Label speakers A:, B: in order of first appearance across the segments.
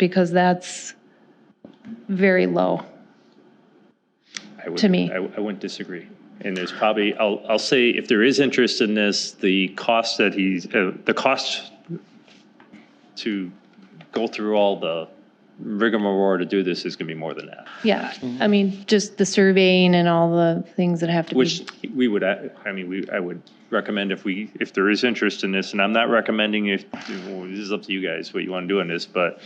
A: because that's very low.
B: I would-
A: to me.
B: I I wouldn't disagree. And there's probably, I'll, I'll say, if there is interest in this, the cost that he's, uh, the cost to go through all the rigmarole to do this is going to be more than that,
A: Yeah, I mean, just the surveying and all the things that have to be.
B: which we would, uh, I mean, we, I would recommend if we, if there is interest in this, and I'm not recommending if, well, this is up to you guys, what you want to do on this, but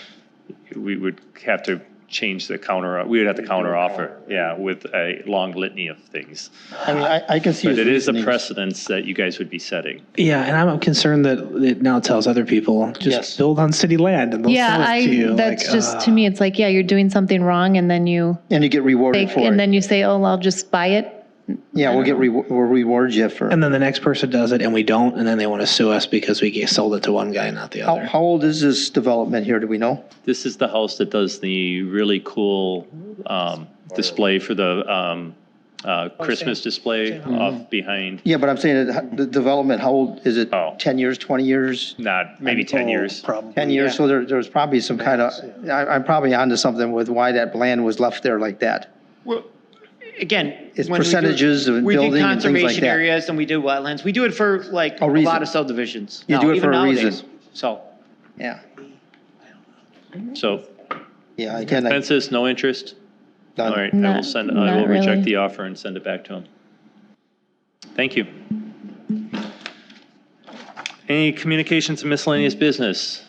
B: we would have to change the counter, we would have to counter offer, yeah, with a long litany of things.
C: I mean, I, I can see.
B: But
C: his
B: it is a
C: reasoning.
B: precedence that you guys would be setting.
D: Yeah, and I'm concerned that it now tells other people just
C: Yes.
D: build on city land and they'll
A: Yeah,
D: sell it to
A: I,
D: you.
A: that's
D: like,
A: just,
D: uh,
A: to me, it's like, yeah, you're doing something wrong and then you,
C: And you get rewarded
A: like,
C: for
A: and
C: it.
A: then you say, oh, well, I'll just buy it.
C: Yeah, we'll get, re- we'll reward you for.
D: And then the next person does it, and we don't, and then they want to sue us because we gave- sold it to one guy, not the
C: How,
D: other.
C: how old is this development here? Do we know?
B: This is the house that does the really cool um, display for the um, uh, Christmas display off behind,
C: Yeah, but I'm saying that h- the development, how old is it?
B: Oh.
C: 10 years, 20 years?
B: not, maybe
C: Oh,
B: 10 years.
D: Probably.
C: 10 years, so there, there's probably some kind of, I, I'm probably onto something with why that land was left there like that.
E: Well, again.
C: It's
E: when we do-
C: percentages of
E: we did
C: building and things like
E: conservation
C: that.
E: Areas and we did wetlands. We do it for like
C: A
E: a
C: reason.
E: lot of subdivisions.
C: You
E: now,
C: do it
E: even
C: for a
E: nowadays.
C: reason.
E: So,
C: Yeah,
B: So
C: yeah, again, I-
B: consensus, no interest? All
C: done.
B: right, I will
A: Not-
B: send, I will
A: not
B: reject
A: really.
B: the offer and send it back to him. Thank you. Any communications and miscellaneous business?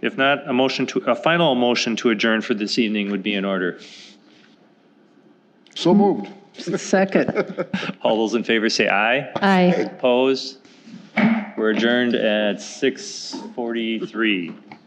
B: If not, a motion to, a final motion to adjourn for this evening would be in order.
F: So moved.
A: Second.
B: All those in favor say aye.
A: Aye.
B: Opposed? We're adjourned at 6:43.